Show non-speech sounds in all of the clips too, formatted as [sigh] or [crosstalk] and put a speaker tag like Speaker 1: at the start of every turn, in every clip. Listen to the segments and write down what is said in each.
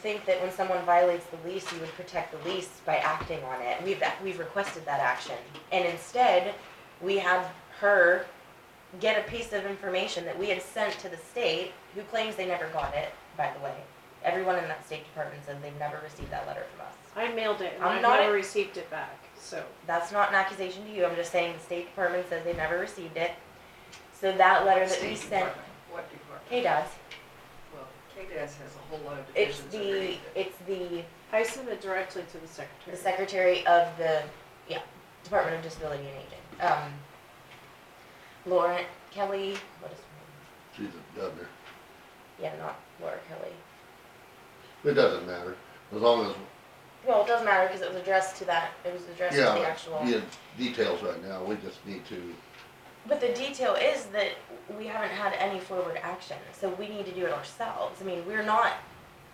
Speaker 1: think that when someone violates the lease, you would protect the lease by acting on it. We've, we've requested that action. And instead, we have her get a piece of information that we had sent to the state, who claims they never got it, by the way. Everyone in that State Department says they've never received that letter from us.
Speaker 2: I mailed it and
Speaker 1: I'm
Speaker 2: I
Speaker 1: not-
Speaker 2: never received it back, so.
Speaker 1: That's not an accusation to you, I'm just saying the State Department says they never received it. So that letter that we
Speaker 3: State
Speaker 1: sent,
Speaker 3: Department. What department?
Speaker 1: hey, Dad,
Speaker 3: Well, KDAS has a whole lot of
Speaker 1: it's
Speaker 3: divisions
Speaker 1: the,
Speaker 3: underneath it.
Speaker 1: it's the
Speaker 2: I sent it uh, directly to the
Speaker 1: the
Speaker 2: secretary.
Speaker 1: secretary of the, yeah, Department of Disability and Aging. Um, Lauren Kelly, what is her
Speaker 4: She's a governor.
Speaker 1: name? Yeah, not Laura Kelly.
Speaker 4: It doesn't matter, as long as,
Speaker 1: Well, it doesn't matter because it was addressed to that, it was addressed to the
Speaker 4: yeah,
Speaker 1: actual.
Speaker 4: yeah, details right now, we just need to,
Speaker 1: But the detail is that we haven't had any forward action, so we need to do it ourselves. I mean, we're not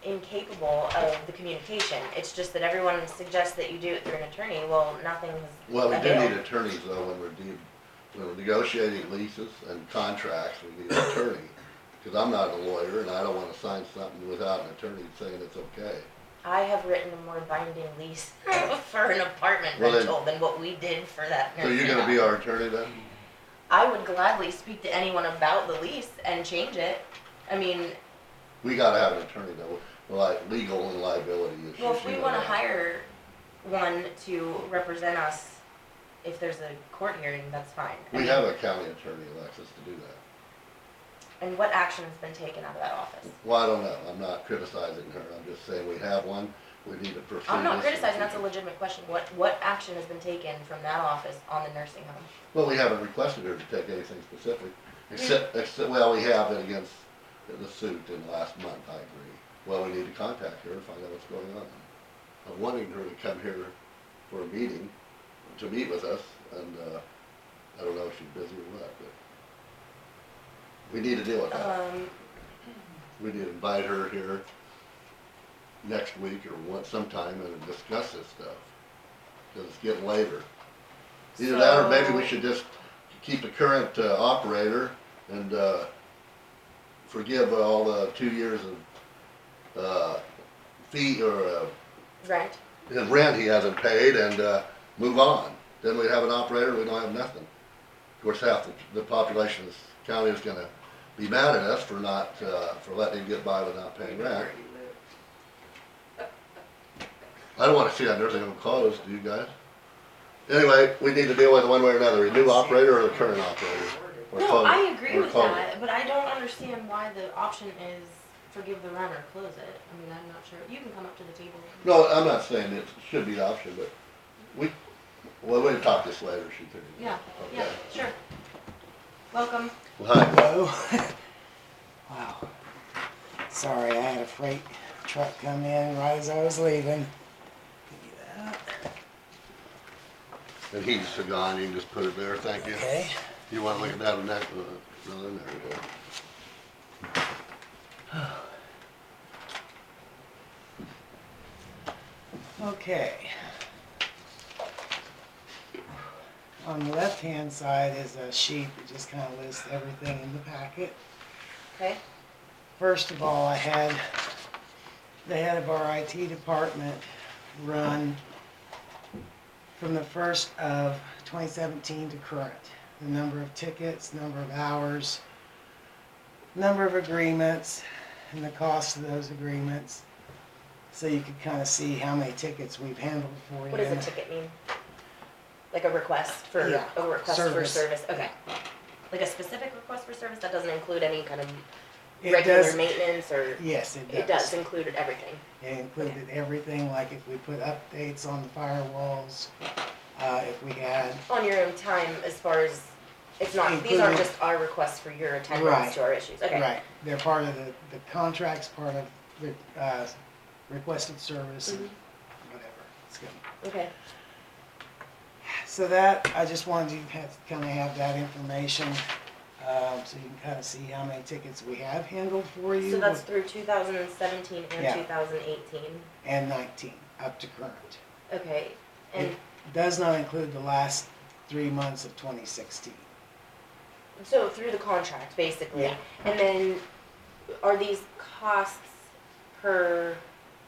Speaker 1: incapable of the communication. It's just that everyone suggests that you do it through an attorney. Well, nothing was
Speaker 4: well, we do
Speaker 1: available.
Speaker 4: need attorneys though, when we're de- when we're negotiating leases and contracts, we need an attorney. Cause I'm not a lawyer and I don't wanna sign something without an attorney saying it's okay.
Speaker 1: I have written a more binding lease [laughs] for an apartment
Speaker 4: Well, then-
Speaker 1: rental than what we did for that
Speaker 4: So
Speaker 1: nursing
Speaker 4: you're gonna
Speaker 1: home.
Speaker 4: be our attorney then?
Speaker 1: I would gladly speak to anyone about the lease and change it. I mean,
Speaker 4: We gotta have an attorney though, like legal and liability issues.
Speaker 1: well, if
Speaker 4: you
Speaker 1: we
Speaker 4: know
Speaker 1: wanna
Speaker 4: that.
Speaker 1: hire one to represent us, if there's a court hearing, that's fine. I
Speaker 4: We
Speaker 1: mean,
Speaker 4: have a county attorney, Alexis, to do that.
Speaker 1: And what action has been taken out of that office?
Speaker 4: Well, I don't know, I'm not criticizing her, I'm just saying we have one, we need to pursue this.
Speaker 1: I'm
Speaker 4: in
Speaker 1: not
Speaker 4: the
Speaker 1: criticizing, that's a
Speaker 4: future.
Speaker 1: legitimate question. What, what action has been taken from that office on the nursing home?
Speaker 4: Well, we haven't requested her to take anything specific,
Speaker 1: Mm.
Speaker 4: except, except, well, we have it against the suit in the last month, I agree. Well, we need to contact her and find out what's going on. I'm wanting her to come here for a meeting, to meet with us, and, uh, I don't know if she's busy or what, but we need to deal with that.
Speaker 1: Um,
Speaker 4: We need to invite her here next week or once sometime and discuss this stuff, because it's getting later. Either that, or maybe we
Speaker 2: So-
Speaker 4: should just keep the current uh, operator and uh, forgive all the two years of uh, fee or uh,
Speaker 1: right,
Speaker 4: his rent he hasn't paid and uh, move on. Then we'd have an operator, we don't have nothing. Of course, half the, the population of this county is gonna be mad at us for not, uh, for letting him get by without paying rent.
Speaker 3: Where you live.
Speaker 4: I don't wanna see that nursing home closed, do you guys? Anyway, we need to deal with it one way or another, a new operator or the current operator. or
Speaker 1: No,
Speaker 4: close-
Speaker 1: I agree
Speaker 4: or
Speaker 1: with
Speaker 4: close it.
Speaker 1: that, but I don't understand why the option is forgive the rent or close it. I mean, I'm not sure. You can come up to the table.
Speaker 4: No, I'm not saying it should be an option, but we, well, we'll talk this later, she figured.
Speaker 1: Yeah, yeah, sure. Welcome.
Speaker 4: Well, hi.
Speaker 5: Hello. [laughs] wow. Sorry, I had a freight truck come in right as I was leaving.
Speaker 4: And he's gone, you can just put it there, thank you.
Speaker 5: Okay.
Speaker 4: You wanna look at that and that, uh, no, then there we go.
Speaker 5: Okay. On the left-hand side is a sheet that just kind of lists everything in the packet.
Speaker 1: Okay.
Speaker 5: First of all, I had the head of our IT department run from the first of 2017 to current. The number of tickets, number of hours, number of agreements, and the cost of those agreements. So you could kind of see how many tickets we've handled for you.
Speaker 1: What does a ticket mean? Like a request for,
Speaker 5: Yeah,
Speaker 1: a request for
Speaker 5: service.
Speaker 1: service, okay. Like a specific request for service that doesn't include any kind of
Speaker 5: It
Speaker 1: regular
Speaker 5: does-
Speaker 1: maintenance or,
Speaker 5: Yes, it does.
Speaker 1: it does include everything.
Speaker 5: It included everything, like if we put updates on the firewalls, uh, if we had
Speaker 1: On your own time as far as, it's not, these aren't
Speaker 5: Including-
Speaker 1: just our requests for your
Speaker 5: Right.
Speaker 1: attendance to our issues, okay.
Speaker 5: Right, they're part of the, the contracts, part of the, uh, requested service and
Speaker 1: Mhm.
Speaker 5: whatever. It's good.
Speaker 1: Okay,
Speaker 5: So that, I just wanted you to have, kinda have that information, um, so you can kinda see how many tickets we have handled for you.
Speaker 1: so that's through two thousand and seventeen and
Speaker 5: Yeah.
Speaker 1: two thousand eighteen,
Speaker 5: And nineteen, up to current.
Speaker 1: okay, and
Speaker 5: Does not include the last three months of twenty sixteen.
Speaker 1: So through the contract, basically,
Speaker 5: Yeah.
Speaker 1: and then are these costs per